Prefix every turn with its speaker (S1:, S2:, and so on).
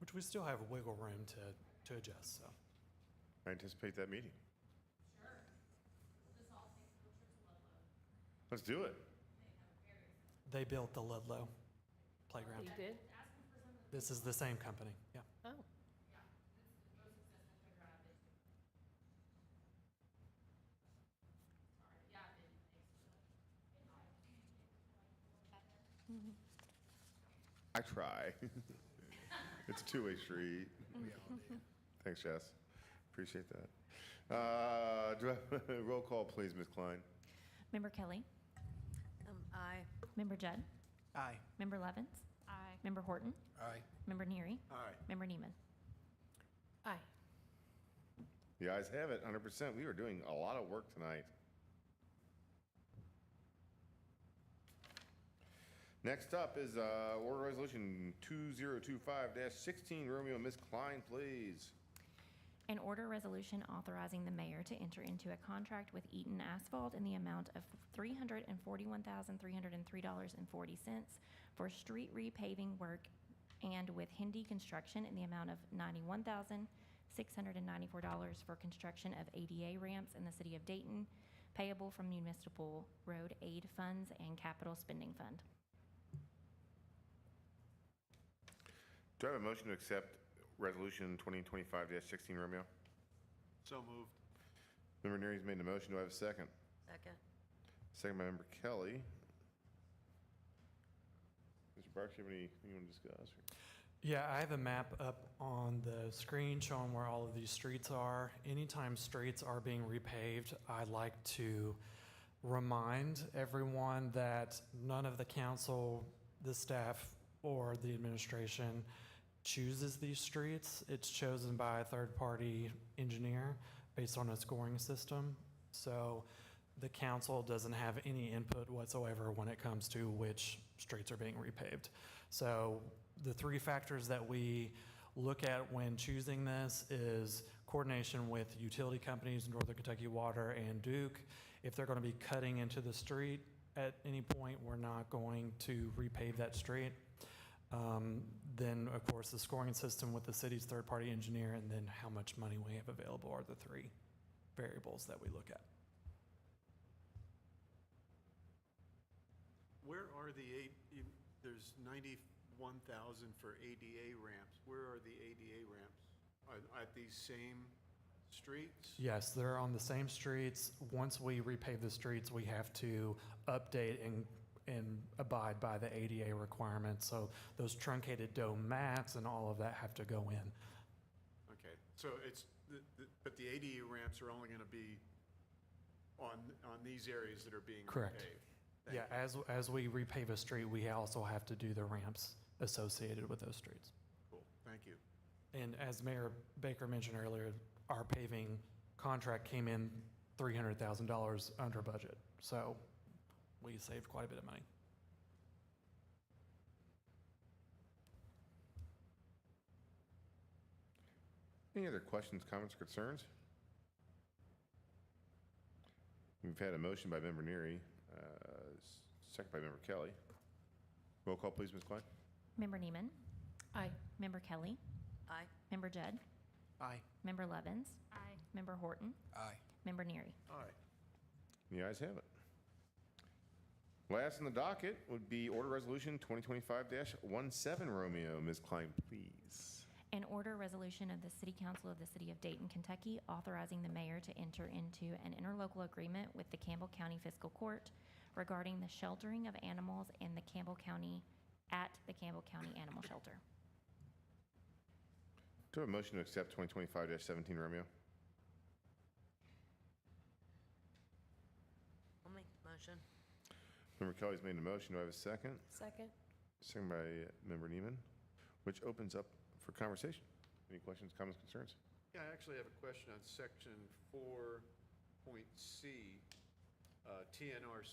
S1: which we still have wiggle room to, to adjust, so.
S2: I anticipate that meeting.
S3: Sure. We'll just all take a trip to Ludlow.
S2: Let's do it.
S3: They have a very.
S1: They built the Ludlow
S4: You
S1: playground.
S4: did?
S3: Ask them for some of the,
S1: This is the same company, yeah.
S4: Oh.
S3: yeah, this is the most successful playground I've been to. Sorry, yeah, I've been, thanks for the invite.
S2: I try. it's a two-way street. Thanks, Jess. Appreciate that. Uh, do I, roll call, please, Ms. Klein.
S5: Member Kelly.
S6: Um, aye.
S5: Member Judd.
S7: Aye.
S5: Member Levens.
S6: Aye.
S5: Member Horton.
S7: Aye.
S5: Member Neary.
S7: Aye.
S5: Member Neiman.
S4: Aye.
S2: The ayes have it, 100%. We are doing a lot of work tonight. Next up is uh, Order Resolution 2025-16. Romeo, Ms. Klein, please.
S5: An order resolution authorizing the mayor to enter into a contract with Eaton Asphalt in the amount of $341,303.40 for street repaving work and with Hindi Construction in the amount of $91,694 for construction of ADA ramps in the city of Dayton, payable from municipal road aid funds and capital spending fund.
S2: Do I have a motion to accept Resolution 2025-16, Romeo?
S7: So moved.
S2: Member Neary's made the motion. Do I have a second?
S6: Second.
S2: Second by Member Kelly. Mr. Parks, you have anything you want to discuss? or-
S1: Yeah, I have a map up on the screen showing where all of these streets are. Anytime streets are being repaved, I like to remind everyone that none of the council, the staff, or the administration chooses these streets. It's chosen by a third-party engineer based on a scoring system. So the council doesn't have any input whatsoever when it comes to which streets are being repaved. So the three factors that we look at when choosing this is coordination with utility companies, Northern Kentucky Water and Duke. If they're going to be cutting into the street at any point, we're not going to repave that street. Um, Then, of course, the scoring system with the city's third-party engineer, and then how much money we have available are the three variables that we look at.
S7: Where are the eight, you- there's 91,000 for ADA ramps. Where are the ADA ramps? Are at these same streets?
S1: Yes, they're on the same streets. Once we repave the streets, we have to update and, and abide by the ADA requirements. So those truncated dome mats and all of that have to go in.
S7: Okay, so it's, the- the- but the ADA ramps are only going to be on, on these areas that are being
S1: Correct.
S7: repaved? Thank
S1: Yeah,
S7: you.
S1: as, as we repave a street, we also have to do the ramps associated with those streets.
S7: Cool, thank you.
S1: And as Mayor Baker mentioned earlier, our paving contract came in $300,000 under budget. So we saved quite a bit of money.
S2: Any other questions, comments, or concerns? We've had a motion by Member Neary, uh, s- second by Member Kelly. Roll call, please, Ms. Klein.
S5: Member Neiman.
S4: Aye.
S5: Member Kelly.
S6: Aye.
S5: Member Judd.
S7: Aye.
S5: Member Levens.
S4: Aye.
S5: Member Horton.
S7: Aye.
S5: Member Neary.
S7: Aye.
S2: The ayes have it. Last on the docket would be Order Resolution 2025-17, Romeo. Ms. Klein, please.
S5: An order resolution of the City Council of the City of Dayton, Kentucky, authorizing the mayor to enter into an interlocal agreement with the Campbell County Fiscal Court regarding the sheltering of animals in the Campbell County, at the Campbell County Animal Shelter.
S2: Do I have a motion to accept 2025-17, Romeo?
S6: I'll make the motion.
S2: Member Kelly's made a motion. Do I have a second?
S4: Second?
S2: Second by Member Neiman, which opens up for conversation. Any questions, comments, concerns?
S7: Yeah, I actually have a question on section four point C, uh, TNR